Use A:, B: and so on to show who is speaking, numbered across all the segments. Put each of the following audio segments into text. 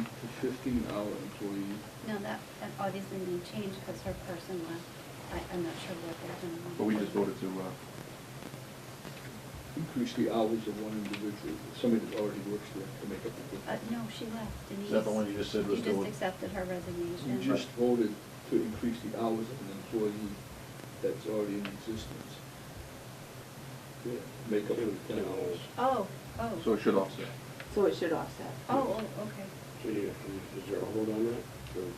A: to fifteen-hour employee.
B: No, that, that obviously may change because her person left. I, I'm not sure what they're doing.
C: But we just voted to, uh,
A: Increase the hours of one individual, somebody that already works there to make up the
B: Uh,
A: difference.
B: no, she left, Denise.
C: that the one you just said was
B: You
C: doing-
B: just accepted her resignation.
A: We just voted to increase the hours of an employee that's already in existence. Yeah, Make up the ten hours.
B: Oh, oh.
C: so it should offset.
D: So it should offset.
B: Oh, oh, okay.
E: So you- Is there a hold on that? Or-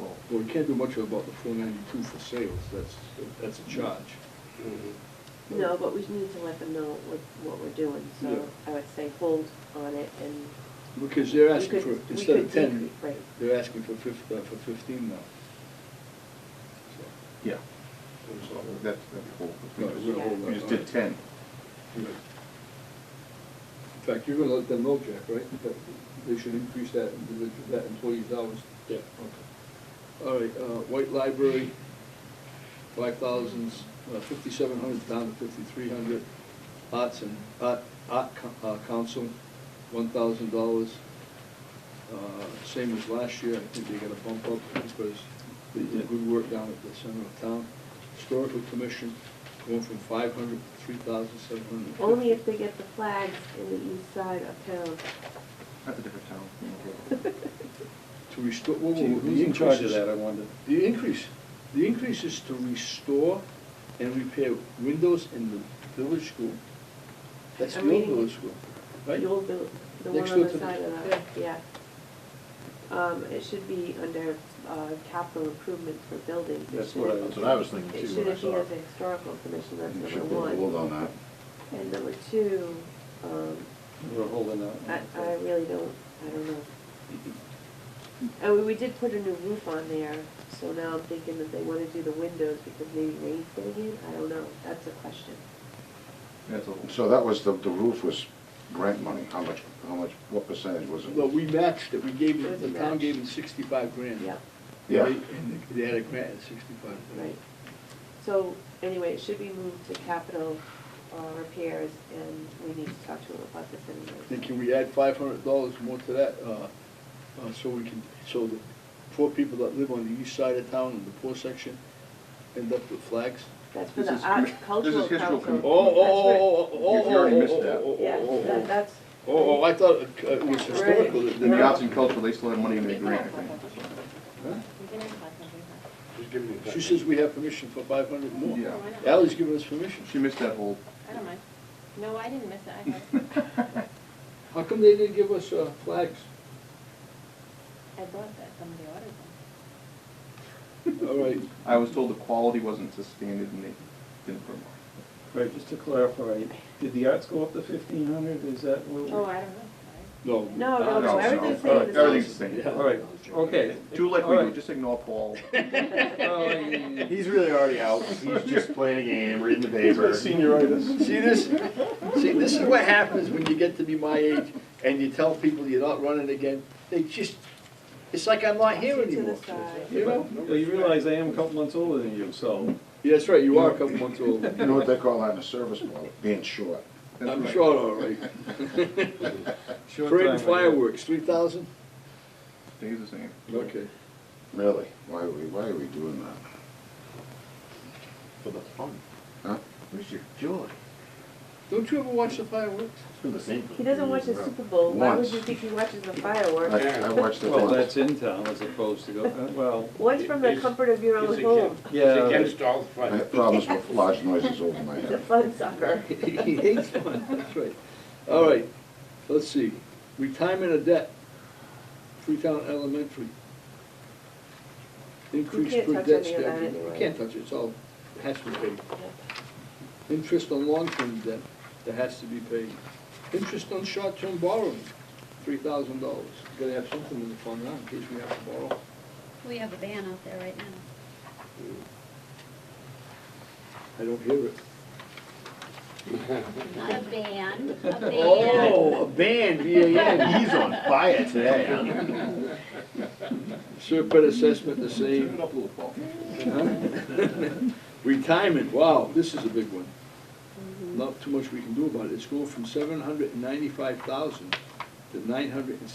C: Well,
A: Well, we can't do much about the four ninety-two for sales, that's, that's a charge.
E: mm-hmm.
D: No, but we need to let them know what, what we're doing,
A: Yeah.
D: so I would say hold on it and,
A: Because they're
D: We
A: asking
D: could-
A: for,
D: we
A: instead
D: could
A: of ten,
D: decrease, right.
A: they're asking for fif, uh, for fifteen now. So,
C: yeah. So That's, that's cool.
A: No, we're
C: We
A: gonna hold
C: just- we
A: that.
C: just did ten.
A: you know. In fact, you're gonna let them know, Jack, right? That they should increase that, individual- that employee's hours.
E: Yeah.
A: Okay. All right, uh, White Library, five thousands, uh, fifty-seven hundred down to fifty-three hundred. Arts and, Art, Art Co- uh, Council, one thousand dollars. Uh, Same as last year, I think they got a bump up because they did good work down at the center of town. Historical Commission, going from five hundred to three thousand seven hundred and fifty.
D: only if they get the flags in the east side of town.
C: That's a different town. you know.
A: To restore, whoa, whoa,
F: Gee,
A: whoa,
F: Who's
A: the
F: in charge of
A: increases-
F: that, I wonder?
A: The increase, the increase is to restore and repair windows in the village school. That's the
D: I'm
A: old
D: reading it.
A: village school, right?
D: The old, buil- the one
A: Next
D: on
A: door
D: the
A: to the-
D: side of the, yeah. Um, it should be under, uh, capital improvements for buildings. It
F: That's what I-
D: shouldn't-
F: that's what I was thinking
D: It
F: too when I
D: shouldn't be
F: saw it.
D: under historical commission, that's
F: You
D: number
F: should put a
D: one.
F: hold on that.
D: And number two, um,
F: We're holding that.
D: I, I really don't, I don't know. And we- we did put a new roof on there, so now I'm thinking that they wanna do the windows because maybe rain's getting in, I don't know, that's a question.
C: That's a whole.
F: So that was, the, the roof was grant money, how much, how much, what percentage was it?
A: Well, we matched it, we gave
D: It
A: it,
D: was
A: the
D: a
A: town
D: match.
A: gave it sixty-five grand.
D: Yep,
F: Yeah.
A: They- And they- they had a grant at sixty-five.
D: right. So, anyway, it should be moved to capital, uh, repairs, and we need to talk to them about this
A: Then
D: anyway.
A: can we add five hundred dollars more to that, uh, uh, so we can, so the poor people that live on the east side of town in the poor section end up with flags?
D: That's for
C: This
D: the
C: is
D: Art
C: commi- this
D: Cultural
C: is history
A: Oh,
D: Council.
C: commi-
A: oh, oh, oh, oh, oh,
C: You- you already
A: oh,
C: missed
A: oh,
C: that.
A: oh, oh, oh,
D: Yeah,
A: oh, oh.
D: that, that's.
A: Oh, oh, I thought it uh, it was historical. that-
C: The
A: that-
C: arts and culture, they still have money in their grant, I
A: Huh?
C: think.
B: You can have five hundred bucks.
E: Just give me a
A: She
E: second.
A: says we have permission for five hundred more.
D: Oh,
C: Yeah.
A: Ally's giving us permission.
C: She missed that whole.
G: I don't mind. No, I didn't miss it, I had,
A: How come they didn't give us uh, flags?
G: I bought that, somebody ordered them.
A: All right,
C: I was told the quality wasn't to standard and they didn't put them
H: Right, just to clarify, did the arts go up to fifteen hundred, is that what? we-
G: Oh, I don't know.
A: no.
D: No,
C: on.
D: no,
C: No,
D: no,
C: no,
D: everything's
C: all right,
D: staying the same.
C: Everything's the same.
A: Yeah.
H: All right, okay.
C: Do like
H: All
C: we do,
H: right.
C: just ignore Paul.
H: Well, I-
F: He's really already out, he's just playing a game, reading the
H: He's got senioritis.
A: See this? See, this is what happens when you get to be my age and you tell people you're not running again. They just, it's like I'm not here
D: To the
A: anymore.
D: side.
A: You know?
H: Well, You realize I am a couple months older than you, so.
A: Yeah, that's right, you are a couple months
F: You
A: old.
F: know what they call that in the service world, being short.
A: I'm short, all right.
H: short
A: Parade
H: time
A: and
H: ago.
A: fireworks, three thousand?
C: Stays the same.
A: Okay.
F: Really? Why are we, why are we doing that?
E: For the fun.
F: Huh?
E: Where's your joy?
A: Don't you ever watch the fireworks?
E: It's been the same.
D: He doesn't watch the Super Bowl, why would
F: Once.
D: you think he watches the
F: I,
D: fireworks?
F: I watched it
H: Well, that's
F: once.
H: in town as opposed to go, uh, well,
D: One's from the
E: It's-
D: comfort of your
E: it's
D: own
E: a
D: home,
E: kid.
H: Yeah.
E: It's against all
F: I
E: fun.
F: had problems with large noises over my
D: he's a
F: head.
D: fun sucker.
A: He hates fun, that's right. All right, let's see, retirement of debt, Freetown Elementary. Increase
D: can't
A: per
D: touch
A: debt
D: any of that
A: schedule. You
D: anyway.
A: can't touch it, it's all, has to be paid. Interest on long-term debt, that has to be paid. Interest on short-term borrowing, three thousand dollars. Gotta have something in the fund now, in case we have to borrow.
B: We have a ban out there right now.
A: I don't hear it.
B: Not a ban, a ban.
A: Oh, a ban, B A N.
F: He's on fire today, huh?
A: Surplus assessment the same.
C: Turn it up a little, Paul.
A: Retirement, wow, this is a big one. Mm-hmm. Not too much we can do about it. It's going from seven hundred and ninety-five thousand to nine hundred and